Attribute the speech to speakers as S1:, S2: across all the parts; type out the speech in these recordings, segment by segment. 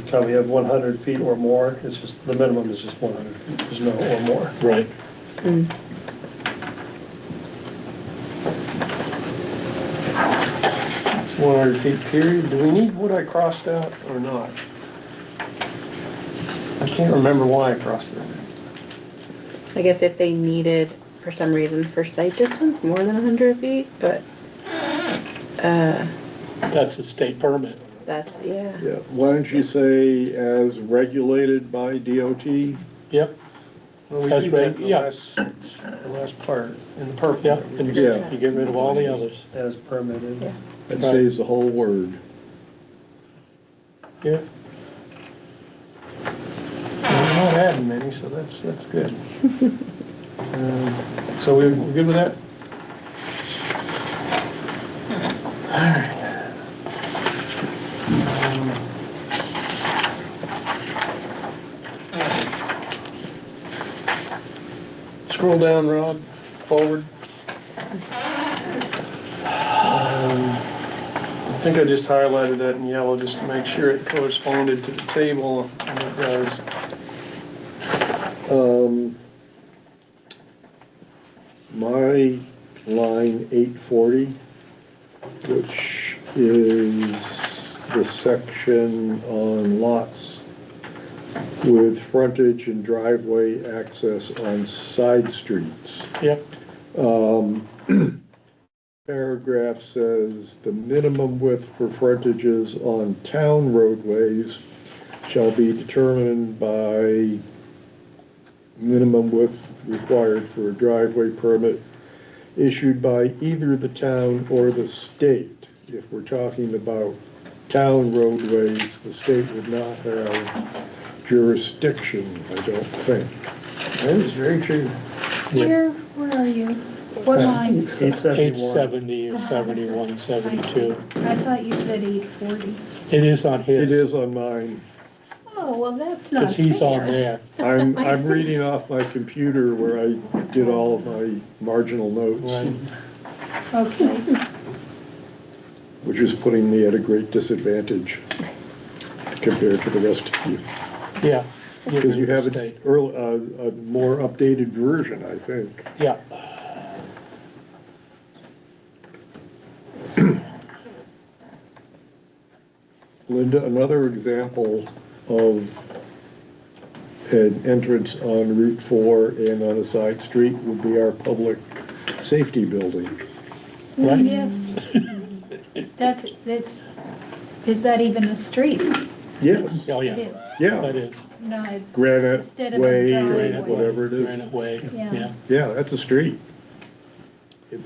S1: Can we have 100 feet or more? It's just, the minimum is just 100. feet. There's no or more.
S2: Right.
S3: It's 100 feet period. Do we need what I crossed out or not? I can't remember why I crossed it.
S4: I guess if they needed, for some reason, for sight distance, more than hundred feet, but, uh,
S2: That's a state permit.
S4: that's, yeah.
S5: Yeah, why don't you say as regulated by DOT?
S2: Yep,
S3: Well, we
S2: That's
S3: do that
S2: right,
S3: in the
S2: yeah.
S3: last- The last part, in the purple.
S2: yeah, and
S5: Yeah.
S2: you get rid of all the others.
S1: As permitted.
S4: Yeah.
S5: It saves the whole word.
S2: Yeah,
S3: We're not adding many, so that's, that's good. Um, So we, we're good with that? Alright. Scroll down, Rob, forward. Um, I think I just highlighted that in yellow just to make sure it corresponded to the table, and it does.
S5: Um, My line eight forty, which is the section on lots with frontage and driveway access on side streets.
S2: yep,
S5: paragraph says, "The minimum width for frontages on town roadways shall be determined by minimum width required for a driveway permit issued by either the town or the state." If we're talking about town roadways, the state would not have jurisdiction, I don't think.
S3: That is very true.
S6: Where, where are you? What
S2: Uh,
S6: line?
S2: eight
S1: 871.
S2: seventy or seventy-one,
S6: I see.
S2: seventy-two.
S6: I thought you said eight forty.
S2: It is on his.
S5: It is on mine.
S6: Oh, well, that's not
S2: Cause he's on
S6: fair.
S2: there,
S5: I'm,
S6: I
S5: I'm
S6: see.
S5: reading off my computer where I did all of my marginal
S2: right,
S5: notes,
S6: Okay,
S5: which is putting me at a great disadvantage compared to the rest of you.
S2: yeah.
S5: Because you have a,
S2: State.
S5: earl- uh, a, a more updated version, I think.
S2: Yeah,
S5: Linda, another example of an entrance on Route Four and on a side street would be our public safety building.
S2: Right.
S6: yes. That's, that's, is that even a street?
S5: Yes,
S2: oh,
S6: It
S2: yeah,
S6: is.
S2: that
S5: yeah,
S2: is.
S6: No, it-
S5: Granite
S6: Instead of a
S5: Way,
S6: driveway.
S5: or whatever it is.
S2: Granite Way,
S6: Yeah.
S2: yeah,
S5: Yeah, that's a street. It-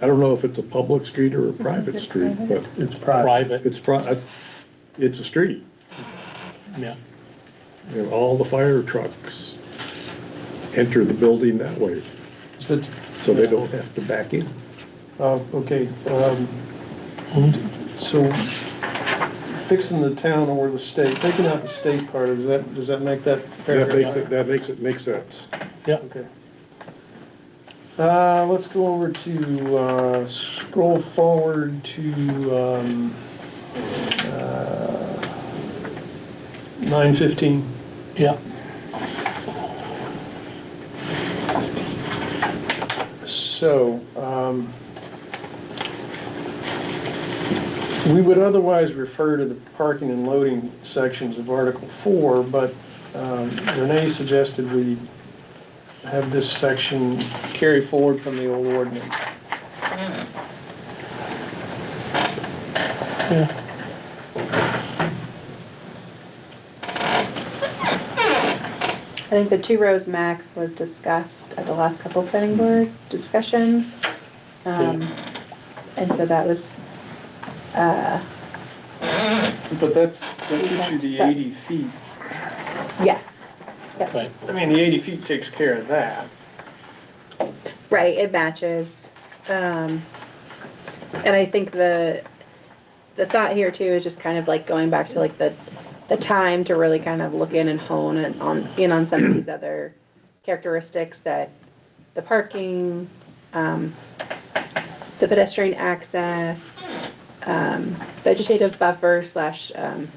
S5: I don't know if it's a public street or a private
S6: it
S5: street, but
S1: It's private.
S2: private,
S5: it's, pri- it's a street.
S2: yeah,
S5: You know, all the fire trucks enter the building that way,
S3: So,
S5: so they don't have to back in.
S3: uh, okay, um, so fixing the town or the state, taking out the state part, does that, does that make that
S5: That
S3: paragraph?
S5: makes it, that makes it make sense.
S2: yeah,
S3: Okay. Uh, let's go over to, uh, scroll forward to, um, uh, nine fifteen.
S2: yeah,
S3: So, um, we would otherwise refer to the parking and loading sections of Article 4, but um, Renee suggested we have this section carry forward from the old ordinance.
S2: yeah.
S4: I think the two rows max was discussed at the last couple of planning board discussions. Um, and so that was, uh,
S3: But that's, that gives you the 80 feet.
S4: yeah,
S2: Right,
S3: I mean, the 80 feet takes care of that.
S4: right, it matches. Um, and I think the, the thought here too is just kind of like going back to like the, the time to really kind of look in and hone and on, in on some of these other characteristics that the parking, um, the pedestrian access, um, vegetative buffer slash, um,